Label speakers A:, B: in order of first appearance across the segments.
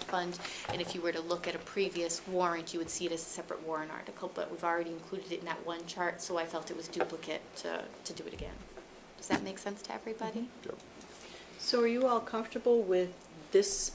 A: general fund, and if you were to look at a previous warrant, you would see it as a separate warrant article, but we've already included it in that one chart, so I felt it was duplicate to, to do it again. Does that make sense to everybody?
B: Mm-hmm.
C: So are you all comfortable with this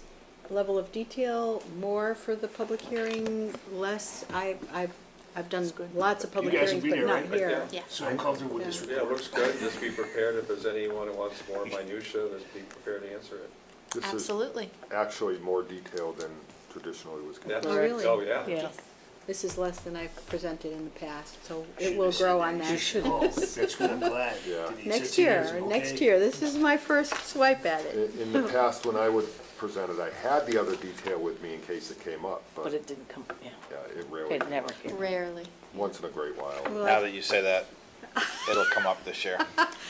C: level of detail, more for the public hearing, less? I, I've, I've done lots of public
D: You guys will
C: hearings,
D: be
C: but
D: there,
C: not
D: right?
C: here.
A: Yeah.
D: So I'm comfortable with this
E: Yeah, it
D: report.
E: looks good, just be prepared, if there's anyone who wants more minutia, just be prepared to answer it.
B: This is
A: Absolutely.
B: actually more detailed than traditionally was
E: That's-
B: conducted.
C: Oh, really?
E: Oh, yeah.
A: Yes.
C: This is less than I've presented in the past, so
D: Should
C: it will
D: have said
C: grow on
D: You
C: that.
D: should have. That's what I'm glad.
B: Yeah.
D: Denise,
C: Next
D: that's it,
C: year,
D: it's
C: next
D: okay.
C: year, this is my first swipe at it.
B: In, in the past, when I would present it, I had the other detail with me in case it came up,
F: But
B: but
F: it didn't come, yeah,
B: yeah, it rarely,
F: it never came.
A: Rarely.
B: once in a great while.
G: Now
C: Well,
G: that you say that, it'll come up this year.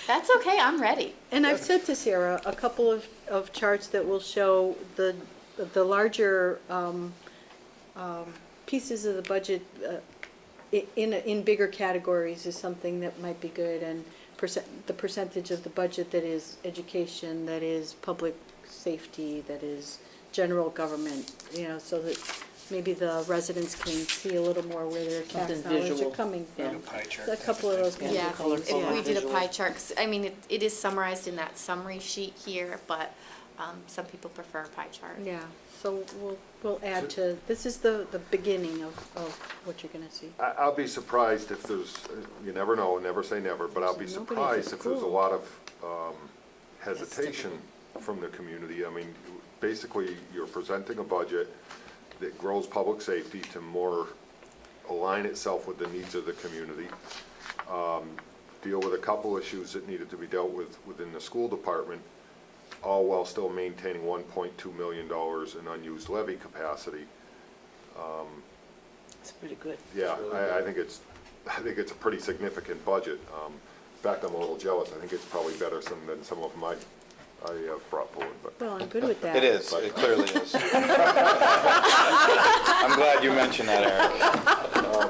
A: That's okay, I'm ready.
C: And I've said to Sarah, a couple of, of charts that will show the, the larger um, um, pieces of the budget uh, i- in, in bigger categories is something that might be good, and percent, the percentage of the budget that is education, that is public safety, that is general government, you know, so that maybe the residents can see a little more where their tax
F: Something
C: dollars are
F: visual,
C: coming
F: yeah.
C: from.
D: Pie chart
C: A
D: type
C: couple of
D: thing.
C: those kinds
A: Yeah,
C: of things,
F: colorful
A: if we did a
F: visual.
A: pie chart, 'cause, I mean, it, it is summarized in that summary sheet here, but, um, some people prefer a pie chart.
C: Yeah, so we'll, we'll add to, this is the, the beginning of, of what you're gonna see.
B: I, I'll be surprised if there's, you never know, never say never, but I'll be
C: Nobody's at
B: surprised if there's a
C: school.
B: lot of, um, hesitation from the community. I mean, basically, you're presenting a budget that grows public safety to more align itself with the needs of the community. um, deal with a couple issues that needed to be dealt with within the school department, all while still maintaining one point two million dollars in unused levy capacity.
F: It's pretty good.
B: Yeah, I, I think it's, I think it's a pretty significant budget. Um, in fact, I'm a little jealous. I think it's probably better some, than some of my, I uh, brought forward, but
C: Well, I'm good with that.
G: It is, it clearly is. I'm glad you mentioned that, Eric.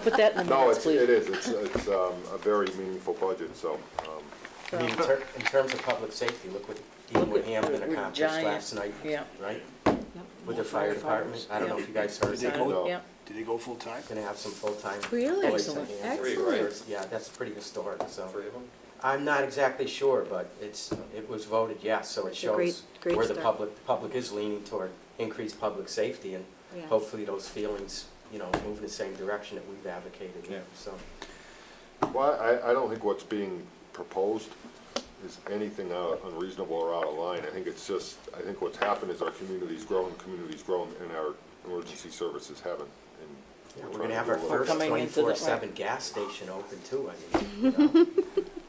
F: Put that in the
B: no,
F: minutes,
B: it's, it
F: please.
B: is. It's, it's, um, a very meaningful budget, so, um,
H: I mean, in ter- in terms of public safety, look what
F: Look
H: Dean
F: what-
H: Woodhampton
F: we're
H: accomplished
F: giant,
H: last night,
F: yeah.
H: right? With the fire department, I don't know if you guys heard,
D: Did they
H: they're
D: go,
F: Yeah.
D: did they go full time?
H: gonna have some full-time
C: Really?
H: employees on
C: Excellent.
H: hand.
C: Excellent.
E: Three, right?
H: Yeah, that's pretty historic, so.
E: Three of them?
H: I'm not exactly sure, but it's, it was voted yes, so it
C: It's a great-
H: shows
C: great
H: where the
C: start.
H: public, the public is leaning toward increased public safety, and
C: Yeah.
H: hopefully those feelings, you know, move in the same direction that we've advocated,
E: Yeah.
H: so.
B: Well, I, I don't think what's being proposed is anything out- unreasonable or out of line. I think it's just, I think what's happened is our community's grown, community's grown, and our emergency services haven't.
H: Yeah,
B: and
H: We're
B: trying to
H: gonna have
B: do
H: our
B: a little-
H: first
F: Coming into the-
H: twenty-four seven gas station open too, I mean, you know,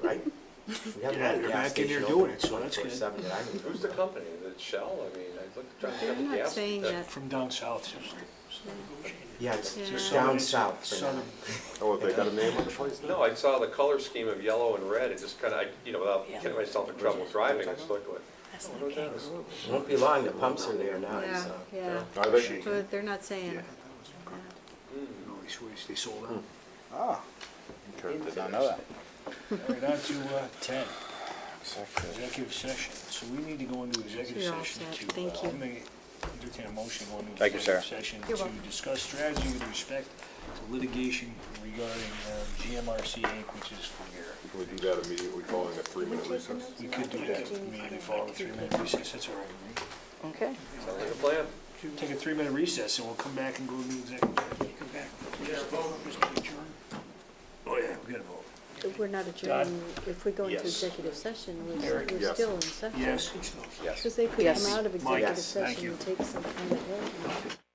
H: right? We haven't
D: Yeah,
H: had a
D: they're
H: gas
D: back in there
H: station
D: doing
H: open
D: it, so that's good.
H: 24/7 that I can
E: Who's the
H: remember.
E: company? Is it Shell? I mean, I looked, tried to
C: They're
E: get the gas.
C: not saying that,
D: From down south.
H: Yeah, it's
C: Yeah.
H: it's down south for now.
D: Southern.
B: Oh, have they got a name on the place now?
E: No, I saw the color scheme of yellow and red, it just kinda, I you know, without
F: Yeah.
E: getting myself in trouble driving, I just looked like,
F: That's
E: oh,
F: not
E: who's that?
F: kangaroo.
H: Won't be long, the pumps are there now,
C: yeah,
H: so.
C: yeah,
B: Are they?
C: but they're not saying
D: Yeah.
C: it.
D: No, they switched, they sold out.
H: Hmm.
D: Ah,
B: Okay.
G: Did not know that.
D: we're down to uh, ten, executive session. So we need to go into executive
C: You're all
D: session
C: set.
D: to.
C: Thank
D: uh,
C: you.
D: make- Entertain a motion to go into
G: Thank you,
D: executive
G: Sarah.
D: session
A: You're
D: to
A: welcome.
D: discuss strategy with respect to litigation regarding uh, GMRC Inc., which is for your
B: Can we do that immediately following a three-minute recess?
D: We could do that, immediately follow a three-minute recess, that's all right.
F: Okay.
E: Sounds like a plan.
D: with me. Take a three-minute recess, and we'll come back and go to the executive. Come back. Oh, yeah, we gotta vote.
C: We're not adjourned, if we go into
D: Yes.
C: executive session, we're,
D: Eric,
C: we're
B: yes.
C: still in session.
D: Yes.
C: Because they could
F: Yes.
C: come out of
D: Mike,
C: executive
D: yes, thank
C: session
D: you.
C: and take some kind of vote.